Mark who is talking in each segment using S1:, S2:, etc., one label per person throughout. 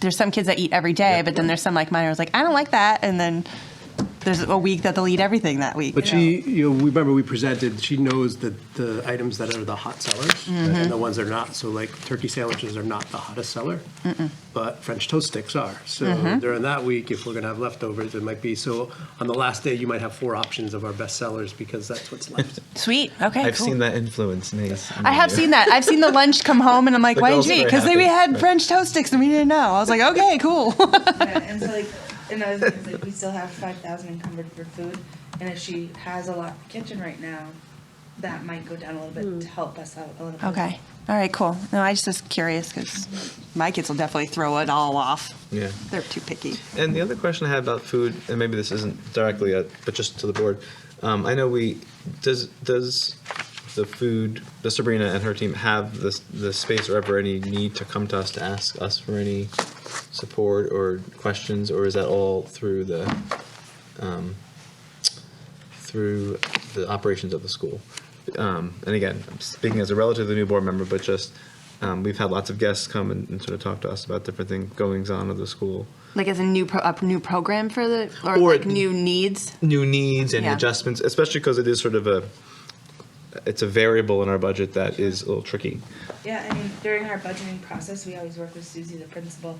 S1: there's some kids that eat every day, but then there's some like mine who's like, I don't like that, and then there's a week that they'll eat everything that week.
S2: But
S1: you know?
S2: she, you know, remember we presented, she knows that the items that are the hot sellers and the ones that are not. So like turkey sandwiches are not the hottest seller, but French toast sticks are. So during that week, if we're going to have leftovers, it might be, so on the last day, you might have four options of our best sellers because that's what's left.
S1: sweet. Okay,
S3: I've
S1: cool.
S3: seen that influence, Nace.
S1: I have seen that. I've seen the lunch come home, and I'm like,
S3: The
S1: why did
S3: girls
S1: you
S3: are
S1: eat?
S3: very
S1: Because we
S3: happy.
S1: had French toast sticks and we didn't know. I was like, okay, cool.
S4: Yeah, and so like another thing is like we still have five thousand encumbered for food, and if she has a lot in the kitchen right now, that might go down a little bit to help us out a little bit.
S1: Hmm. okay. All right, cool. No, I just was curious because my kids will definitely throw it all off.
S3: Yeah.
S1: They're too picky.
S3: And the other question I had about food, and maybe this isn't directly, at, but just to the board. Um, I know we does does the food does Sabrina and her team have this the space or ever any need to come to us to ask us for any support or questions, or is that all through the um, through the operations of the school? Um, and again, I'm speaking as a relatively new board member, but just um, we've had lots of guests come and, and sort of talk to us about different things goings on of the school.
S1: Like as a new pro- a new program for the or,
S3: Or-
S1: like new needs.
S3: new needs and
S1: Yeah.
S3: adjustments, especially because it is sort of a it's a variable in our budget that is a little tricky.
S4: Yeah, I mean during our budgeting process, we always work with Susie, the principal,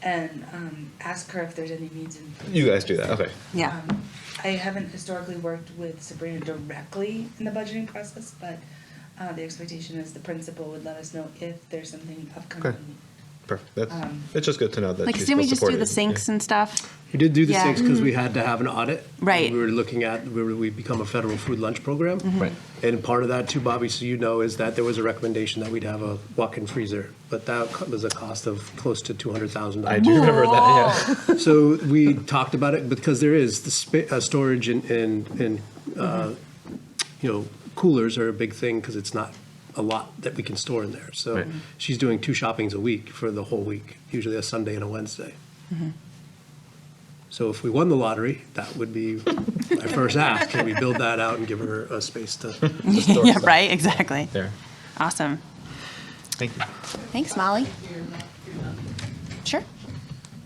S4: and um, ask her if there's any needs in. food.
S3: You guys do that, okay?
S1: Yeah.
S4: Um, I haven't historically worked with Sabrina directly in the budgeting process, but uh, the expectation is the principal would let us know if there's something upcoming.
S3: Okay. Perfect. That's
S4: Um,
S3: it's just good to know that.
S1: like,
S3: she's
S1: didn't we
S3: still
S1: just do
S3: supported.
S1: the sinks
S3: Yeah.
S1: and stuff?
S2: We did do the
S1: Yeah. Mm-hmm.
S2: six because we had to have an audit.
S1: Right. Mm-hmm.
S2: We were looking at, we were- we become a federal food lunch program.
S3: Right.
S2: And part of that too, Bobby, so you know, is that there was a recommendation that we'd have a walk-in freezer, but that co- was a cost of close to $200,000.
S3: I do remember that. Yeah.
S2: So we talked about it because there is the spa- uh, storage and, and, and, uh, you know, coolers are a big thing because it's not a lot that we can store in there. So
S3: Right.
S2: she's doing two shoppings a week for the whole week, usually a Sunday and a Wednesday. So if we won the lottery, that would be my first ask. Can we build that out and give her a space to
S3: store
S1: yeah.
S3: stuff.
S1: Right. Exactly.
S3: There.
S1: Awesome.
S3: Thank you.
S1: Thanks, Molly. Sure.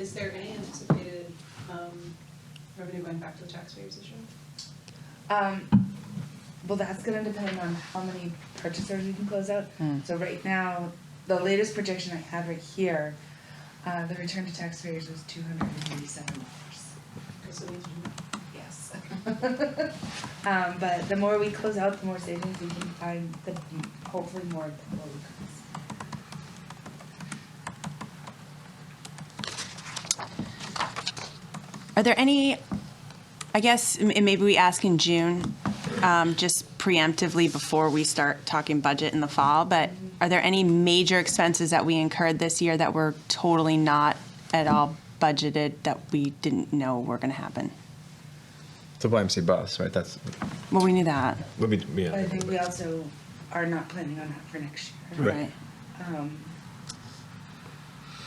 S5: Is there any anticipated um, revenue going back to the taxpayers this year?
S4: Um, well, that's gonna depend on how many purchasers we can close out. So right now, the latest projection I have right here, uh, the return to taxpayers was two hundred and eighty-seven dollars.
S5: Because it means
S4: Yes. Um, but the more we close out, the more savings we can find, the hopefully more of the low cost.
S1: Are there any? I guess m- and maybe we ask in June, um, just preemptively before we start talking budget in the fall. But are there any major expenses that we incurred this year that were totally not at all budgeted that we didn't know were going to happen?
S3: The YMC bus, right? That's
S1: Well, we knew that,
S3: would be yeah.
S4: But I think we also are not planning on that for next year.
S1: right?
S3: Right.
S4: Um,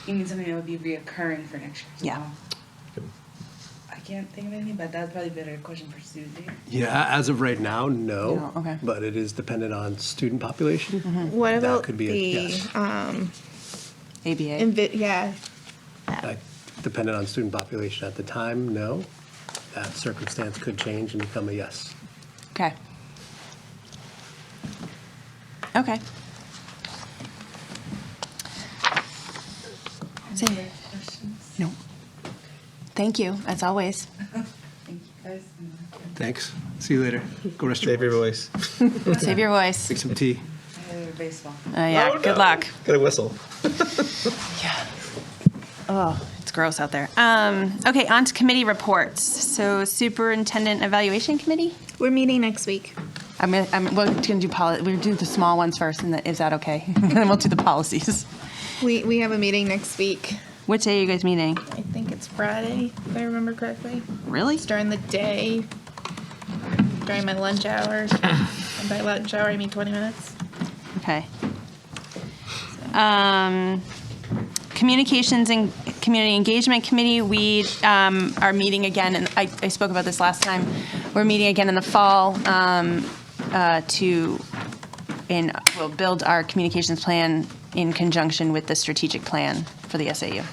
S4: you mean something that would be reoccurring for next year as
S1: Yeah.
S4: well? I can't think of anything, but that's probably a better question for Susie.
S2: Yeah, as of right now,
S1: No,
S2: no.
S1: okay.
S2: But it is dependent on student population.
S6: Mm-hmm. What
S2: That
S6: about
S2: could be a
S6: the,
S2: yes.
S6: um,
S1: ABA.
S6: invi- yeah,
S2: Like, Dependent on student population at the time, no. That circumstance could change and become a yes.
S1: Okay. Okay. Same.
S4: Any other questions?
S1: No. Thank you, as always.
S4: Thank you guys.
S2: Thanks. See you later. Go rest
S3: Save your voice.
S1: Save your voice. Uh,
S2: Drink some tea.
S4: I have a baseball.
S1: yeah.
S3: Oh,
S1: Good
S3: no.
S1: luck.
S3: Got a whistle.
S1: Yeah. Oh, it's gross out there. Um, okay, on to committee reports. So, superintendent evaluation committee.
S6: we're meeting next week.
S1: I'm gonna, I'm, we're gonna do poli- We're gonna do the small ones first, and the, is that okay? and then we'll do the policies.
S6: We, we have a meeting next week.
S1: Which day are you guys meeting?
S6: I think it's Friday, if I remember correctly.
S1: Really?
S6: It's during the day, during my lunch hour. And by lunch hour, I mean 20 minutes.
S1: Okay. Um, Communications and Community Engagement Committee, we um, are meeting again, and I I spoke about this last time. We're meeting again in the fall um, uh, to, and we'll build our communications plan in conjunction with the strategic plan for the SAU.